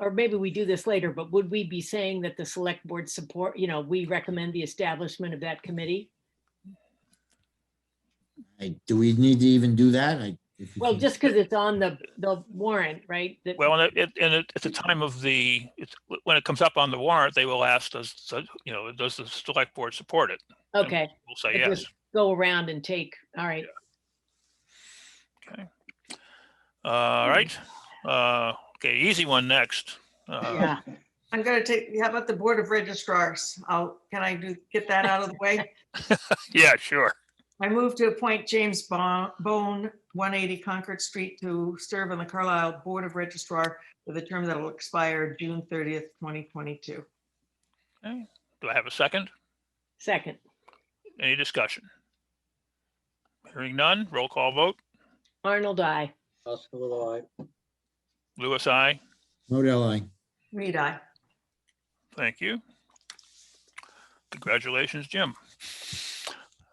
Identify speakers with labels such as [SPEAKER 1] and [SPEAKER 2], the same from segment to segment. [SPEAKER 1] or maybe we do this later, but would we be saying that the select board support, you know, we recommend the establishment of that committee?
[SPEAKER 2] I- Do we need to even do that? I- if you
[SPEAKER 1] Well,
[SPEAKER 2] can-
[SPEAKER 1] just because it's on the, the warrant, right? that-
[SPEAKER 3] Well, and it, and it- at the time of the, it's- when it comes up on the warrant, they will ask, does, does- you know, does the select board support it?
[SPEAKER 1] Okay,
[SPEAKER 3] We'll say
[SPEAKER 1] It
[SPEAKER 3] yes.
[SPEAKER 1] just- go around and take, all right.
[SPEAKER 3] All right. Uh, Okay, easy one next. Uh,
[SPEAKER 1] Yeah,
[SPEAKER 4] I'm gonna take, how about the Board of Registrars? I'll, can I do, get that out of the way?
[SPEAKER 3] Yeah, sure.
[SPEAKER 4] I move to appoint James Bo- Bone, 180 Concord Street, to serve on the Carlisle Board of Registrar with a term that will expire June 30th, 2022.
[SPEAKER 3] Do I have a second?
[SPEAKER 1] second,
[SPEAKER 3] Any discussion? Hearing none, roll call vote.
[SPEAKER 1] Arnold, I,
[SPEAKER 5] Oscar will I.
[SPEAKER 3] Louis, I.
[SPEAKER 2] Modell, I.
[SPEAKER 4] Reed, I.
[SPEAKER 3] Thank you. Congratulations, Jim.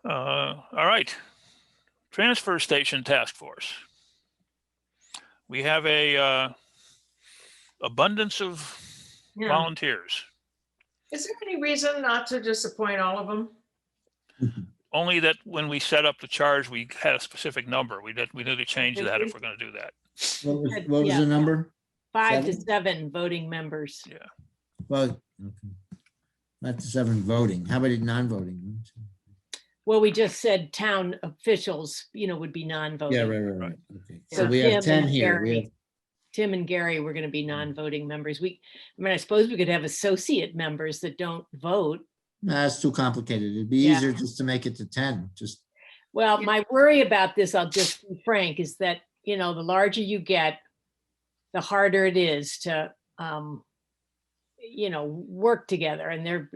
[SPEAKER 3] Uh, All right. Transfer Station Task Force. We have a uh, abundance of
[SPEAKER 4] Yeah.
[SPEAKER 3] volunteers.
[SPEAKER 4] Is there any reason not to disappoint all of them?
[SPEAKER 3] Only that when we set up the charge, we had a specific number. We did, we need to change that if we're going to do that.
[SPEAKER 2] What was,
[SPEAKER 1] Good,
[SPEAKER 2] what was
[SPEAKER 1] yeah.
[SPEAKER 2] the number?
[SPEAKER 1] five to seven voting members.
[SPEAKER 2] Well, okay. not the seven voting. How about it non-voting?
[SPEAKER 1] Well, we just said town officials, you know, would be
[SPEAKER 2] Yeah,
[SPEAKER 1] non-voting.
[SPEAKER 2] right, right, right.
[SPEAKER 3] Right.
[SPEAKER 2] Okay. So
[SPEAKER 1] Yeah.
[SPEAKER 2] we
[SPEAKER 1] Tim
[SPEAKER 2] have ten
[SPEAKER 1] and
[SPEAKER 2] here. We
[SPEAKER 1] Gary.
[SPEAKER 2] have
[SPEAKER 1] Tim and Gary were going to be
[SPEAKER 2] Mm-hmm.
[SPEAKER 1] non-voting members. We, I mean, I suppose we could have associate members that don't vote.
[SPEAKER 2] No, That's too complicated. It'd be
[SPEAKER 1] Yeah.
[SPEAKER 2] easier just to make it to ten, just,
[SPEAKER 1] Well,
[SPEAKER 4] Yeah.
[SPEAKER 1] my worry about this, I'll just be frank, is that, you know, the larger you get, the harder it is to, um, you know, work together and they're,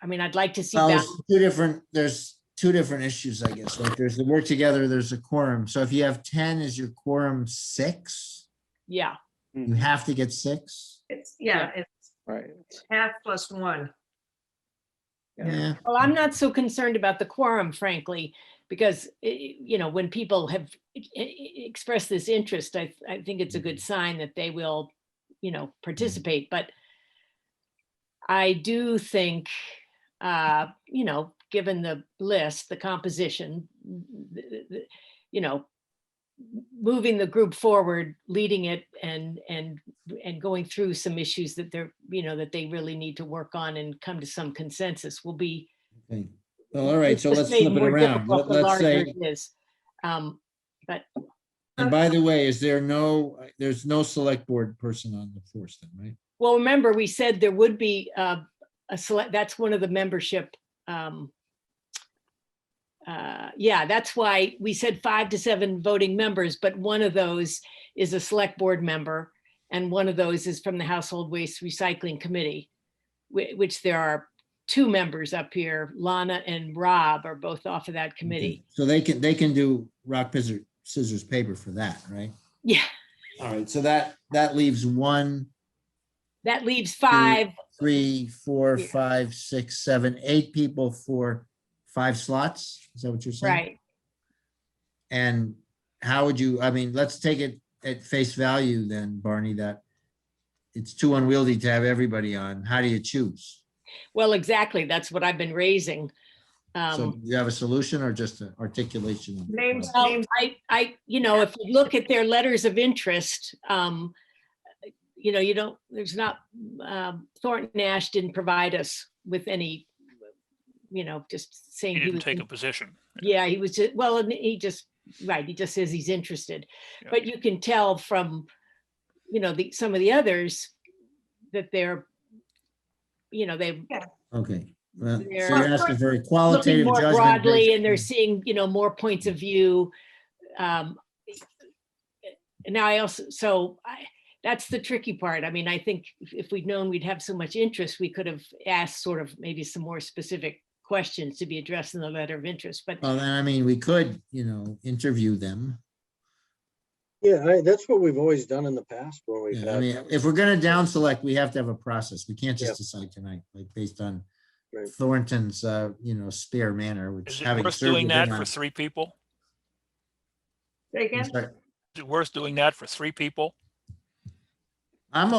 [SPEAKER 1] I mean, I'd like to see
[SPEAKER 2] well,
[SPEAKER 1] that.
[SPEAKER 2] there's two different, there's two different issues, I guess. Like there's the work together, there's a quorum. So if you have ten, is your quorum six?
[SPEAKER 1] Yeah,
[SPEAKER 2] You have to get six?
[SPEAKER 4] It's, yeah, it's
[SPEAKER 5] Right.
[SPEAKER 4] half plus one. Yeah.
[SPEAKER 2] Yeah,
[SPEAKER 1] well, I'm not so concerned about the quorum, frankly, because, eh, eh, you know, when people have eh, eh, expressed this interest, I, I think it's a good sign that they will, you know, participate, but I do think, uh, you know, given the list, the composition, th- th- th- you know, moving the group forward, leading it and, and, and going through some issues that they're, you know, that they really need to work on and come to some consensus will be.
[SPEAKER 2] okay. Well, all right,
[SPEAKER 1] it's
[SPEAKER 2] so
[SPEAKER 1] just
[SPEAKER 2] let's
[SPEAKER 1] made
[SPEAKER 2] flip it
[SPEAKER 1] more
[SPEAKER 2] around.
[SPEAKER 1] difficult
[SPEAKER 2] Let-
[SPEAKER 1] the
[SPEAKER 2] Let's
[SPEAKER 1] larger
[SPEAKER 2] say,
[SPEAKER 1] it is. Um,
[SPEAKER 2] and by the way, is there no, there's no select board person on the force then, right?
[SPEAKER 1] Well, remember, we said there would be uh, a select, that's one of the membership. um, uh, Yeah, that's why we said five to seven voting members, but one of those is a select board member. And one of those is from the Household Waste Recycling Committee, whi- which there are two members up here. Lana and Rob are both off of that committee.
[SPEAKER 2] So they can, they can do rock, scissors, scissors, paper for that, right?
[SPEAKER 1] Yeah,
[SPEAKER 2] All right, so that, that leaves one
[SPEAKER 1] that leaves five.
[SPEAKER 2] three, four,
[SPEAKER 1] Yeah.
[SPEAKER 2] five, six, seven, eight people for five slots? Is that what you're saying?
[SPEAKER 1] Right.
[SPEAKER 2] And how would you, I mean, let's take it at face value then, Barney, that it's too unwieldy to have everybody on. How do you choose?
[SPEAKER 1] Well, exactly. That's what I've been raising. Um,
[SPEAKER 2] So do you have a solution or just an articulation? of the
[SPEAKER 4] Names,
[SPEAKER 2] problem?
[SPEAKER 1] Well,
[SPEAKER 4] names,
[SPEAKER 1] I, I, you know, if you look at their letters of interest, um, you know, you don't, there's not, um, Thornton Ash didn't provide us with any, you know, just saying.
[SPEAKER 3] He
[SPEAKER 1] he
[SPEAKER 3] didn't
[SPEAKER 1] was
[SPEAKER 3] take a
[SPEAKER 1] in-
[SPEAKER 3] position.
[SPEAKER 1] Yeah, he was, ju- well, and he just, right, he just says he's interested.
[SPEAKER 3] Yeah.
[SPEAKER 1] But you can tell from, you know, the, some of the others that they're, you know, they
[SPEAKER 2] Okay. well, So
[SPEAKER 1] They're-
[SPEAKER 2] you're asking for a
[SPEAKER 1] looking
[SPEAKER 2] qualitative
[SPEAKER 1] more
[SPEAKER 2] judgment.
[SPEAKER 1] broadly
[SPEAKER 2] based
[SPEAKER 1] and they're
[SPEAKER 2] on-
[SPEAKER 1] seeing, you know, more points of view. Um and Now I also, so I, that's the tricky part. I mean, I think if- if we'd known we'd have so much interest, we could have asked sort of maybe some more specific questions to be addressed in the letter of interest, but
[SPEAKER 2] Well, then, I mean, we could, you know, interview them.
[SPEAKER 5] Yeah, I, that's what we've always done in the past when we've
[SPEAKER 2] Yeah, I
[SPEAKER 5] had,
[SPEAKER 2] mean, if we're gonna down select, we have to have a process. We can't
[SPEAKER 5] Yeah.
[SPEAKER 2] just decide tonight, like based on
[SPEAKER 5] Right.
[SPEAKER 2] Thornton's, uh, you know, spare manner, which
[SPEAKER 3] Is it
[SPEAKER 2] having
[SPEAKER 3] worth
[SPEAKER 2] served
[SPEAKER 3] doing
[SPEAKER 2] with
[SPEAKER 3] that
[SPEAKER 2] him
[SPEAKER 3] for
[SPEAKER 2] on-
[SPEAKER 3] three people?
[SPEAKER 4] say again?
[SPEAKER 2] I'm sorry,
[SPEAKER 3] Is it worth doing that for three people?